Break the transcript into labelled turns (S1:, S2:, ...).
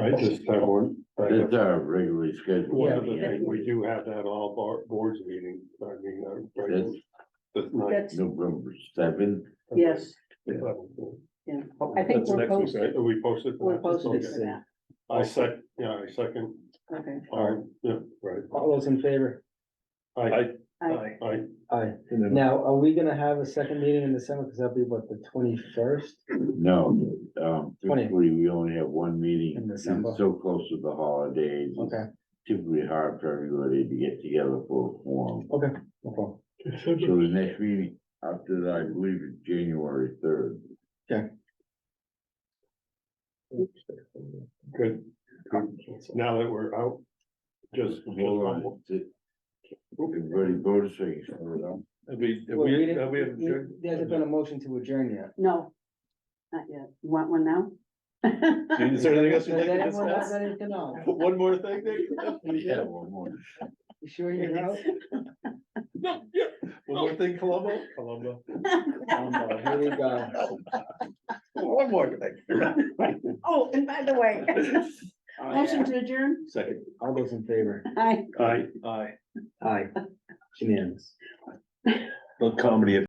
S1: I just have one. I
S2: It's
S1: just-
S2: our regularly scheduled.
S1: One of the
S2: meeting.
S1: things, we do have that all bar, boards meeting, I mean, uh, right,
S2: That's
S1: that's night.
S3: That's,
S2: November seventh.
S3: yes,
S1: I
S3: yeah,
S1: Oh,
S3: I think we're posted,
S1: We posted. for
S3: we're
S1: that?
S3: posted
S1: Okay.
S3: for that,
S1: I sec, yeah, I second,
S3: okay.
S1: all right, yeah, right.
S4: All those in favor?
S1: I,
S3: I,
S1: I,
S4: Aye.
S2: And then-
S4: Now, are we gonna have a second meeting in December? Cause that'll be what, the twenty-first?
S2: No, um,
S4: Twenty.
S2: typically we only have one meeting.
S4: In
S2: It's
S4: December.
S2: So close to the holidays. it's
S4: Okay,
S2: Typically hard for everybody to get together for a forum.
S4: okay. no problem.
S2: So the next meeting after that, I believe is January third.
S1: good, good, now that we're out, just.
S2: Hold on. Did- Everybody voted, so you can vote on.
S1: Have we, have
S4: Well, we
S1: we,
S4: didn't-
S1: have we
S4: we- There hasn't been a motion to adjourn yet.
S3: no, not yet, You want one now?
S1: Is there anything else you'd
S4: Does
S1: like to
S4: anyone have
S1: discuss?
S4: anything else?
S1: One more thing, Nick?
S2: Yeah, one more.
S4: You sure you're out?
S1: One more thing, Columbo? Columbo.
S4: Um, uh, Here we go.
S1: One more thing.
S3: Oh, and by the way, motion to adjourn,
S1: Second.
S4: All those in favor?
S3: I.
S1: Aye. Aye.
S4: Aye. Unanimous.
S1: Little comedy